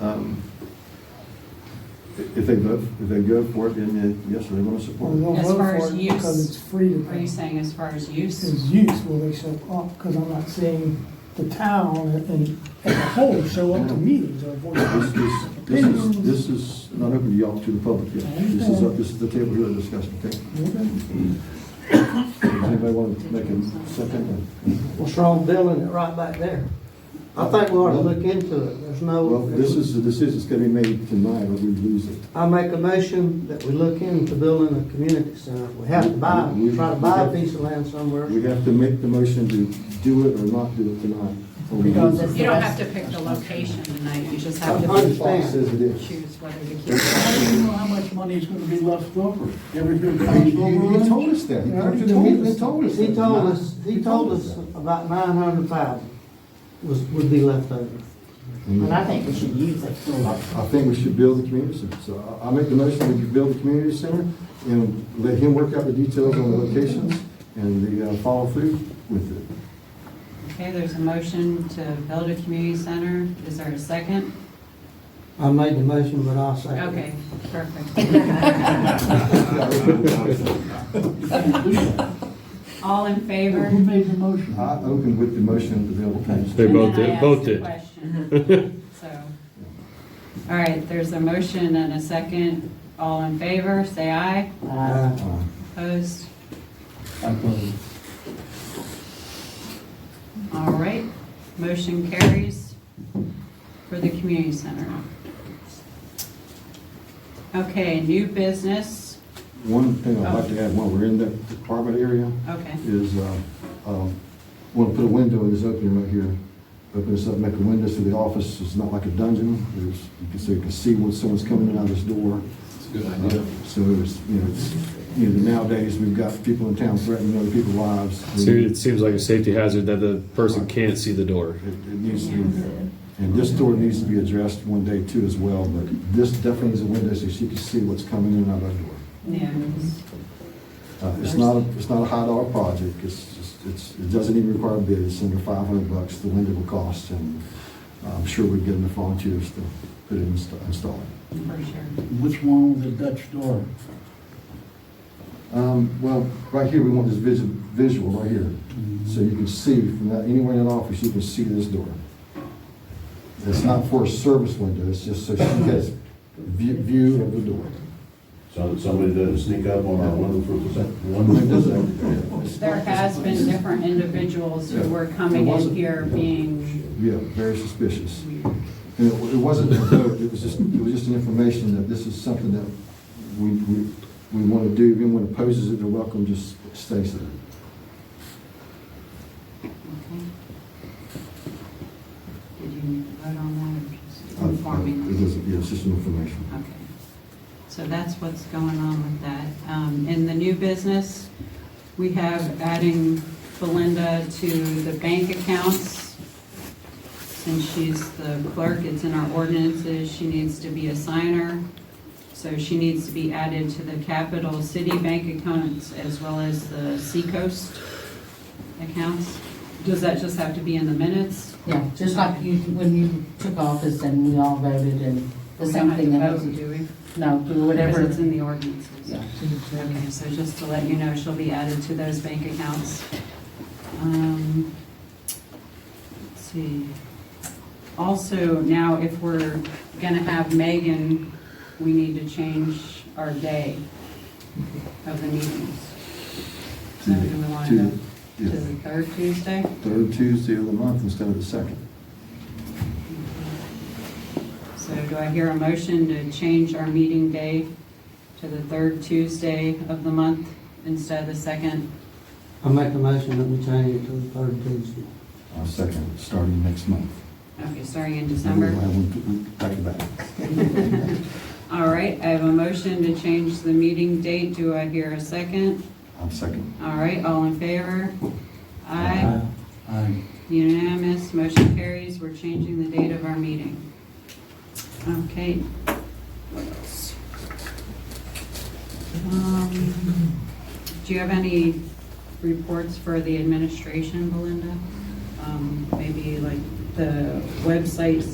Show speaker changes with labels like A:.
A: um, i- if they vote, if they go for it, then uh, yes, they're gonna
B: Well,
A: support
B: they
A: it.
B: don't
C: As
B: vote
C: far
B: for
C: as
B: it
C: use,
B: Because it's free to
C: Are you
B: them.
C: saying as far as use?
B: As use, will they show up? Because I'm not seeing the town and- and as a whole show up to meetings or
A: This
B: voice.
A: is, this is, this is not open to y'all, to the public yet. This is, up- this is the table here to discuss, okay? Does anybody want to make a second?
D: What's wrong building it right back there? I think we ought to look into it, there's
A: Well,
D: no.
A: this is, the decision's gonna be made tonight, or we lose it.
D: I make a motion that we look into building a community center. We have to buy, try to buy a piece of land somewhere.
A: We have to make the motion to do it or not do it tonight. or we
B: Because
A: lose it.
B: it's-
C: You don't have to pick the location tonight, you just
D: I
C: have to
D: understand.
A: Says it is.
C: choose whether to keep
E: How
C: it.
E: do you know how much money is gonna be left over? You Ever hear
A: You-
E: council
A: You you
E: rules?
A: told us that. You
B: already
A: told
B: told
A: us.
B: us.
D: He
A: that.
D: told us, he told us about nine hundred thousand was, would be left over.
F: And I think we should use it.
A: I think we should build the community center. So I I make the motion, we build the community center and let him work out the details on the locations and the uh, follow through with it.
C: Okay, there's a motion to build a community center. Is there a second?
D: I made the motion, but I'll second it.
C: Okay, perfect. All in favor?
E: Who made the motion?
A: I open with the motion to build the community center.
G: They
C: And
G: both
C: then I
G: did-
C: asked
G: both
C: the
G: did.
C: question. So, all right, there's a motion and a second. All in favor, say aye.
D: Uh,
C: Opposed?
A: Uh,
C: All right, motion carries for the community center. Okay, new business,
A: One thing I'd like to add while we're in that department area,
C: okay.
A: is, want to put a window in this opening right here, open this up, make a window so the office is not like a dungeon, there's, you can, so you can see when someone's coming in out of this door. It's a good idea. So it's, you know, it's, you know, nowadays, we've got people in town threatening other people's lives.
G: It seems like a safety hazard that the person can't see the door.
A: It, it needs to be there. And this door needs to be addressed one day too as well, but this definitely needs a window so she can see what's coming in and out of that door.
C: Yeah, it's-
A: Uh, It's not, a- it's not a high dollar project, it's, just- it's, it doesn't even require a bid, it's under five hundred bucks, the window will cost, and I'm sure we'd get enough volunteers to put it in, install it.
C: for sure.
E: What's wrong with the Dutch door?
A: Um, well, right here, we want this visual, visual right here, so you can see from that, anywhere in that office, you can see this door. It's not for a service window, it's just so she gets view, view of the door.
H: So that somebody doesn't sneak up on our wonderful,
A: It
H: wonderful.
A: doesn't-
C: There has been different individuals who were coming in here being
A: Yeah, very suspicious.
C: weird.
A: And It it wasn't a vote, it was just, it was just an information that this is something that we, we, we want to do. If anyone opposes it, they're welcome, just stay Uh, so.
C: Okay. Did you need to vote on that or just
A: Uh, uh,
C: informing Uh,
A: It
C: us?
A: is, yeah, it's just an information.
C: Okay. So that's what's going on with that. Um, In the new business, we have adding Belinda to the bank accounts. Since she's the clerk, it's in our ordinances, she needs to be a signer. So she needs to be added to the capital city bank accounts as well as the Seacoast accounts. Does that just have to be in the minutes?
F: Yeah, just like you, when you took office and we all voted and the
C: We
F: same
C: don't
F: thing.
C: have to vote,
F: happened.
C: do we?
F: No, do
C: Because
F: whatever.
C: it's in the ordinances.
F: Yeah.
C: Okay, so just to let you know, she'll be added to those bank accounts. Um, Let's see. Also, now if we're gonna have Megan, we need to change our day of the meetings. So do we want to, to
A: yeah,
C: the third Tuesday?
A: Third Tuesday of the month instead of the second.
C: So do I hear a motion to change our meeting day to the third Tuesday of the month instead of the second?
D: I make a motion that we change it to the third Tuesday.
A: Uh, second, starting next month.
C: Okay, starting in December.
A: We'll have one Back to back.
C: All right, I have a motion to change the meeting date. Do I hear a second?
A: I'm Uh, second.
C: All right, all in favor? Aye.
E: Aye.
C: Unanimous, motion carries. We're changing the date of our meeting. Okay. What else? Um, Do you have any reports for the administration, Belinda? Um, Maybe like the websites